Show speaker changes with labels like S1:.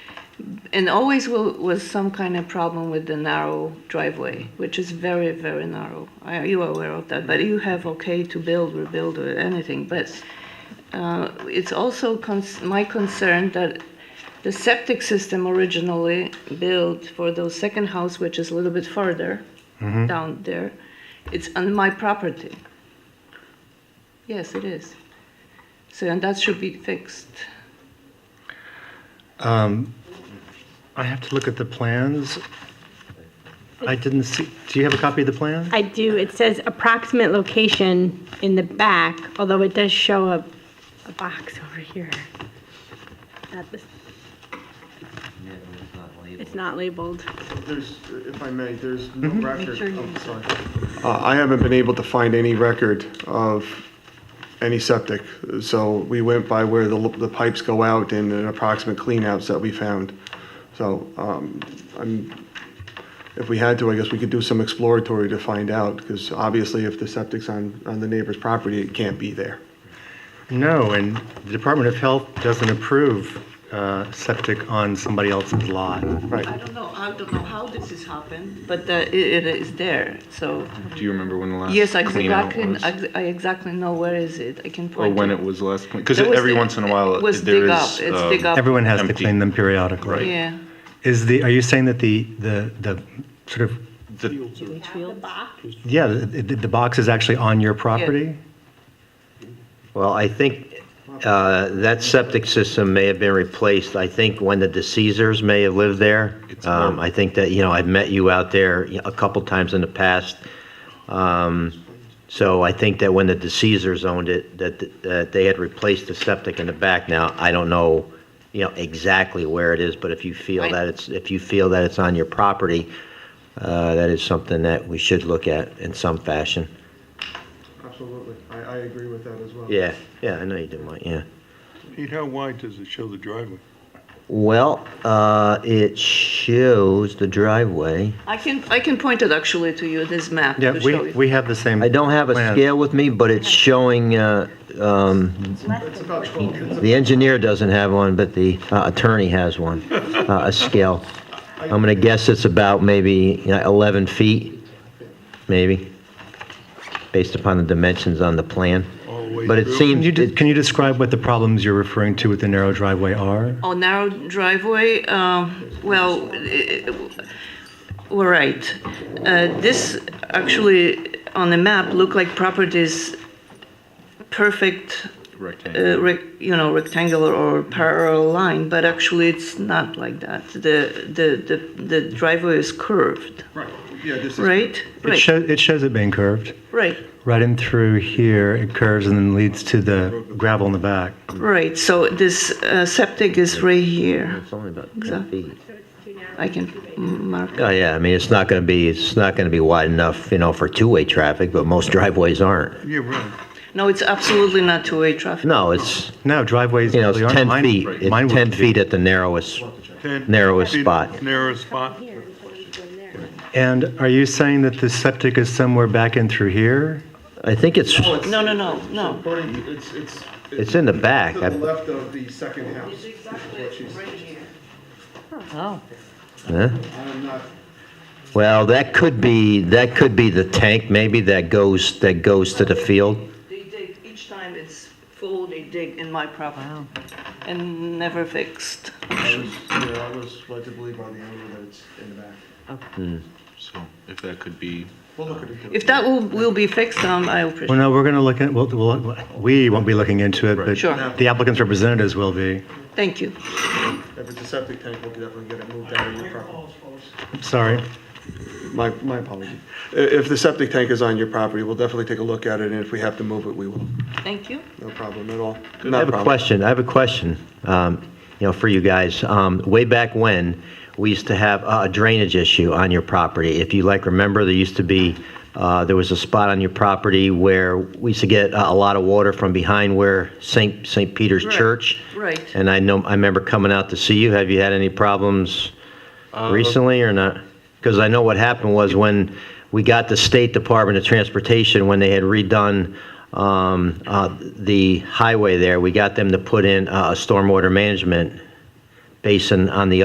S1: and always will, was some kind of problem with the narrow driveway, which is very, very narrow. I, you are aware of that, but you have okay to build, rebuild, or anything. But uh, it's also cons- my concern that the septic system originally built for the second house, which is a little bit further down there, it's on my property. Yes, it is. So, and that should be fixed.
S2: I have to look at the plans. I didn't see, do you have a copy of the plan?
S3: I do, it says approximate location in the back, although it does show a, a box over here. Not this- It's not labeled.
S4: There's, if I may, there's no record,
S3: sure you-
S4: oh, sorry.
S5: Uh, I haven't been able to find any record of any septic, so we went by where the, the pipes go out and the approximate cleanouts that we found. So, um, I'm, if we had to, I guess we could do some exploratory to find out, because obviously if the septic's on, on the neighbor's property, it can't be there.
S2: No, and the Department of Health doesn't approve uh, septic on somebody else's lot.
S5: Right.
S1: I don't know, I don't know how this has happened, but uh, it, it is there, so.
S6: Do you remember when the last?
S1: Yes, I
S6: clean out
S1: exactly,
S6: was?
S1: I I exactly know where is it, I can
S6: Or
S1: point.
S6: when
S1: to-
S6: it was last cleaned? Because
S1: It was
S6: every
S1: dig-
S6: once in a while,
S1: it was
S6: there
S1: dig up.
S6: is.
S1: It's
S6: um,
S1: dig up.
S2: Everyone has to
S6: Empty.
S2: clean them periodically.
S6: Right.
S1: Yeah,
S2: Is the, are you saying that the, the, the sort of,
S6: the-
S2: yeah, the, the the box is actually on your property?
S7: Well, I think uh, that septic system may have been replaced, I think, when the deceasers may have lived there.
S6: It's
S7: Um,
S6: more-
S7: I think that, you know, I've met you out there you know, a couple times in the past. Um, So I think that when the deceasers owned it, that, that they had replaced the septic in the back. Now, I don't know, you know, exactly where it is, but if you feel
S1: Right.
S7: that it's, if you feel that it's on your property, uh, that is something that we should look at in some fashion.
S5: Absolutely, I, I agree with that as well.
S7: Yeah, yeah, I know you didn't want, yeah.
S8: Pete, how wide does it show the driveway?
S7: Well, uh, it shows the driveway.
S1: I can, I can point it actually to you, this map
S2: Yeah,
S1: to show
S2: we,
S1: you.
S2: we have the same.
S7: I don't have a
S2: plan.
S7: scale with me, but it's showing, uh, um,
S5: It's about twelve, it's
S7: the engineer doesn't have one, but the uh, attorney has one, uh, a scale. I'm gonna guess it's about maybe you know, 11 feet, maybe, based upon the dimensions on the plan.
S8: All the way
S7: But it
S8: through?
S2: Can
S7: seems,
S2: you, de-
S7: it-
S2: can you describe what the problems you're referring to with the narrow driveway are?
S1: Oh, narrow driveway, um, well, i- i- we're right. Uh, This actually, on the map, look like properties, perfect
S6: Rectangle.
S1: uh, rec- you know, rectangular or parallel line, but actually it's not like that. The, the, the, the driveway is curved,
S4: Right, yeah, this is.
S1: right?
S2: It
S1: Right,
S2: shows, it shows it being curved.
S1: right,
S2: Right in through here, it curves and then leads to the gravel in the back.
S1: right. So this uh, septic is right here.
S7: it's only about
S1: So-
S7: 10 feet.
S1: I can mark.
S7: Oh, yeah, I mean, it's not gonna be, it's not gonna be wide enough, you know, for two-way traffic, but most driveways aren't.
S8: Yeah, right.
S1: No, it's absolutely not two-way traffic.
S7: No, it's,
S2: No, driveways.
S7: you know, it's
S2: really aren't.
S7: 10
S2: Mine-
S7: feet,
S2: mine
S7: it's
S2: would
S7: 10
S2: be.
S7: feet at the narrowest.
S8: 10
S7: Narrowest
S8: feet,
S7: spot.
S8: Narrowest spot.
S2: And are you saying that the septic is somewhere back in through here?
S7: I think it's,
S4: Oh, it's-
S1: No, no, no, no.
S4: According, to- it's, it's.
S7: It's in the back.
S4: To the left of the second house. is what she's-
S7: huh?
S4: I'm not,
S7: well, that could be, that could be the tank maybe that goes, that goes to the field.
S1: They dig, each time it's full, they dig in my property. And never fixed.
S4: I was, yeah, I was led to believe on the owner that it's in the back.
S6: So if that could be,
S4: We'll look at it.
S1: If that will, will be fixed, um, I
S2: Well,
S1: appreciate it.
S2: no, we're going to look at, we'll- we'll- we won't be looking into it, but
S1: Sure.
S2: the applicant's representatives will be.
S1: Thank you.
S4: If it's a septic tank, we'll definitely get it moved out of your property.
S2: Sorry.
S5: My, my apology. I- If the septic tank is on your property, we'll definitely take a look at it, and if we have to move it, we will.
S1: Thank you.
S5: No problem at all.
S7: I
S5: Not
S7: have a
S5: a problem.
S7: question, I have a question, um, you know, for you guys. Um, way back when, we used to have a drainage issue on your property. If you like, remember, there used to be, uh, there was a spot on your property where we used to get a a lot of water from behind where St. St. Peter's
S1: Right,
S7: Church.
S1: right.
S7: And I know, I remember coming out to see you. Have you had any problems recently or not? Because I know what happened was when we got the State Department of Transportation, when they had redone um, uh, the highway there, we got them to put in uh, a stormwater management basin on the